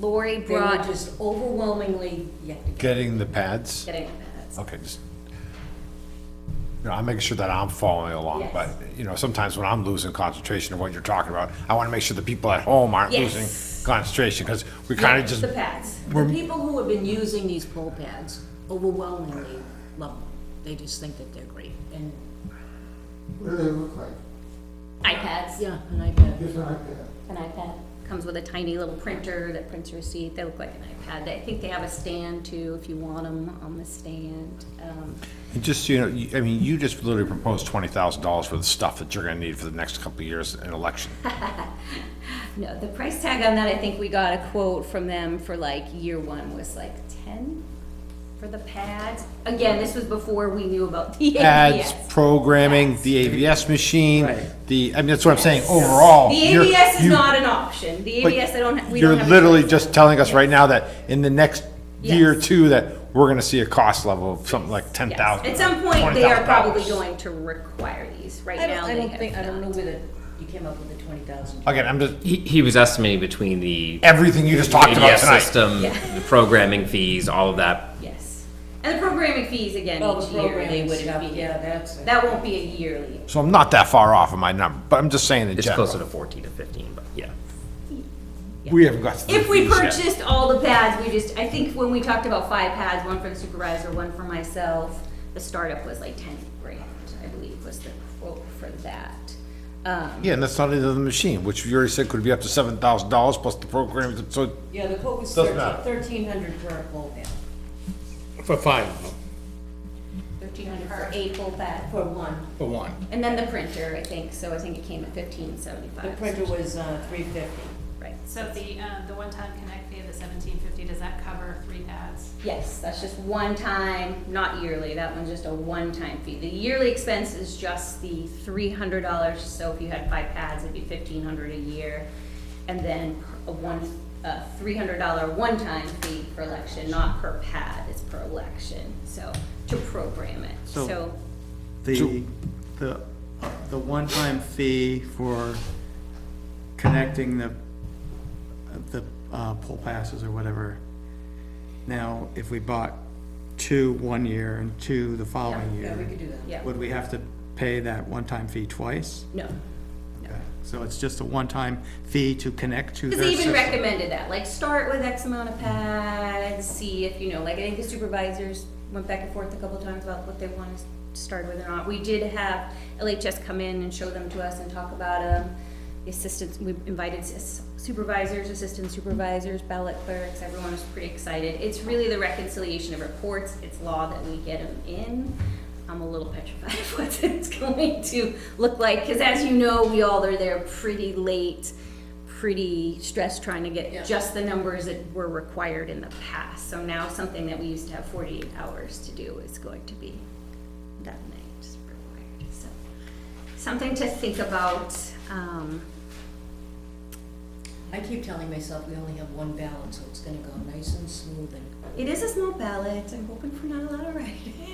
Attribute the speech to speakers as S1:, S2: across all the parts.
S1: Lori
S2: They were
S1: brought,
S2: just overwhelmingly, you have to get
S3: Getting the pads?
S1: getting that.
S3: Okay, just, you know, I'm making sure that I'm following along,
S2: Yes.
S3: but, you know, sometimes when I'm losing concentration of what you're talking about, I want to make sure the people at home aren't losing
S1: Yes.
S3: concentration, because we kind of
S2: Yes,
S3: just,
S2: The pads. The people who have been using these pole pads overwhelmingly love them. They just think that they're great. And,
S4: What do they look like? uh,
S1: iPads,
S2: yeah, an iPad.
S4: Just an iPad.
S1: an iPad. Comes with a tiny little printer that prints your receipt. They look like an iPad. They- I think they have a stand too, if you want them on the stand. Um,
S3: and just, you know, you- I mean, you just literally proposed twenty thousand dollars for the stuff that you're going to need for the next couple of years in election.
S1: Uh, No, the price tag on that, I think we got a quote from them for like year one was like ten for the pads. Again, this was before we knew about the
S3: Ads,
S1: ABS.
S3: programming, the AVS machine,
S5: Right.
S3: the, I mean, that's what I'm saying, overall.
S1: The
S3: you're-
S1: ABS is
S3: you-
S1: not an option. The
S3: But
S1: ABS, I don't, we
S3: You're
S1: don't have. a
S3: literally
S1: choice.
S3: just telling us right now that in the next year or
S1: Yes.
S3: two, that we're gonna see a cost level of something like ten
S1: Yes.
S3: thousand.
S1: At some point, they are probably going to require these. Right
S2: I don't,
S1: now,
S2: I
S1: they
S2: don't think, I
S1: have
S2: don't know
S1: not.
S2: where the, you came up with the twenty thousand.
S3: Again, I'm just,
S5: He, he was estimating between the
S3: everything you just talked about
S5: ABS
S3: tonight.
S5: system,
S1: Yeah.
S5: the programming fees, all of that.
S1: Yes. And the programming fees again
S2: Oh,
S1: each
S2: the
S1: year, they
S2: programming
S1: would
S2: stuff,
S1: be,
S2: yeah, that's.
S1: that won't be a yearly.
S3: So I'm not that far off of my number, but I'm just saying in
S5: It's
S3: general.
S5: closer to 14 to 15, but yeah.
S3: We haven't got. to the
S1: If we
S3: fees yet.
S1: purchased all the pads, we just, I think when we talked about five pads, one for the supervisor, one for myself, the startup was like ten grand, I believe was the quote for that. Um,
S3: Yeah, and that's not into the machine, which you already said could be up to seven thousand dollars plus the program, so
S2: Yeah, the quote was
S3: Doesn't matter.
S2: thirteen hundred per pole pad,
S6: For five,
S1: thirteen hundred for eight full pad,
S2: for one.
S6: for one.
S1: and then the printer, I think, so I think it came at fifteen
S2: The
S1: seventy-five,
S2: printer was, uh, three fifty.
S1: right?
S7: So the, um, the one-time connect fee of the seventeen fifty, does that cover three pads?
S1: Yes, that's just one time, not yearly, that one's just a one-time fee. The yearly expense is just the three hundred dollars, so if you had five pads, it'd be fifteen hundred a year. And then a one, a three hundred dollar one-time fee per election, not per pad, it's per election, so, to program it,
S8: So-
S1: so.
S8: The, the, the one-time fee for connecting the, the uh, pole passes or whatever. Now, if we bought two one year and two the following
S2: Yeah, we
S8: year,
S2: could do that.
S1: Yeah,
S8: would we have to pay that one-time fee twice?
S1: no.
S8: Okay, So it's just a one-time fee to connect to
S1: Because
S8: their
S1: they even
S8: system?
S1: recommended that, like, start with X amount of pads, see if, you know, like, I think the supervisors went back and forth a couple times about what they want to start with or not. We did have LHS come in and show them to us and talk about them. The Assistants, we invited s- supervisors, assistant supervisors, ballot clerks, everyone was pretty excited. It's really the reconciliation of reports, it's law that we get them in. I'm a little petrified of what it's going to look like, because as you know, we all are there pretty late, pretty stressed trying to
S2: Yeah.
S1: get just the numbers that were required in the past. So now something that we used to have forty-eight hours to do is going to be that night is required, so. Something to think about, um,
S2: I keep telling myself we only have one ballot, so it's gonna go nice and smooth and
S1: it is a small ballot, I'm hoping for not a lot of writing.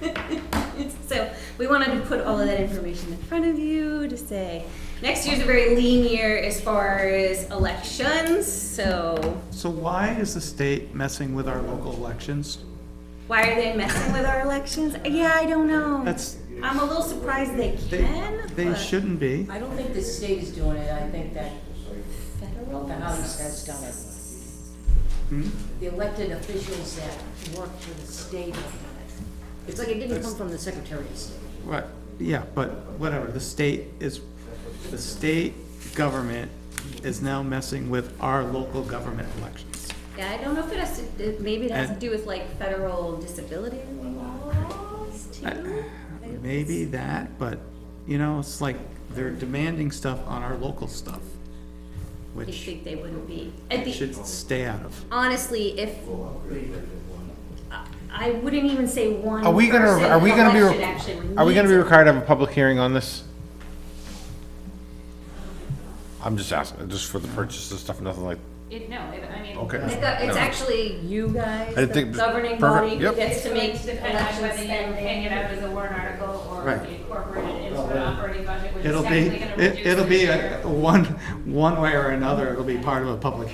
S1: So, we wanted to put all of that information in front of you to say, next year's a very lean year as far as elections, so
S8: So why is the state messing with our local elections?
S1: why are they messing with our elections? Yeah, I don't know.
S8: That's-
S1: I'm a little surprised they
S8: They,
S1: can,
S8: they
S1: but
S8: shouldn't be.
S2: I don't think the state is doing it, I think that
S1: federal
S2: the House has done it.
S8: Hmm?
S2: The elected officials that work for the state have done it. It's like it didn't come from the Secretary of State.
S8: Right, yeah, but whatever, the state is, the state government is now messing with our local government elections.
S1: Yeah, I don't know if it has to, it- maybe it has to
S8: And-
S1: do with like federal disability laws too?
S8: Maybe that, but, you know, it's like they're demanding stuff on our local stuff,
S1: I
S8: which
S1: think they wouldn't be. At
S8: we
S1: the
S8: should stay out of.
S1: honestly, if, I- I wouldn't even say one
S3: Are we gonna,
S1: person
S3: are we gonna
S1: election
S3: be,
S1: actually
S3: are we gonna be
S1: needs it.
S3: required to have a public hearing on this? I'm just asking, just for the purchase of stuff, nothing like,
S7: It, no, it- I mean.
S3: okay.
S1: It's go- It's actually you guys, the
S3: I think-
S1: governing
S3: perfect,
S1: body, who
S3: yep.
S1: gets to make
S7: Depending on
S1: election
S7: whether you hang it
S1: spending.
S7: out as a warrant article or
S8: Right.
S7: incorporate it into an operating budget, which is
S8: It'll
S7: technically
S8: be,
S7: gonna reduce.
S8: it- it'll be
S7: your-
S8: a- one, one way or another, it'll be part of a public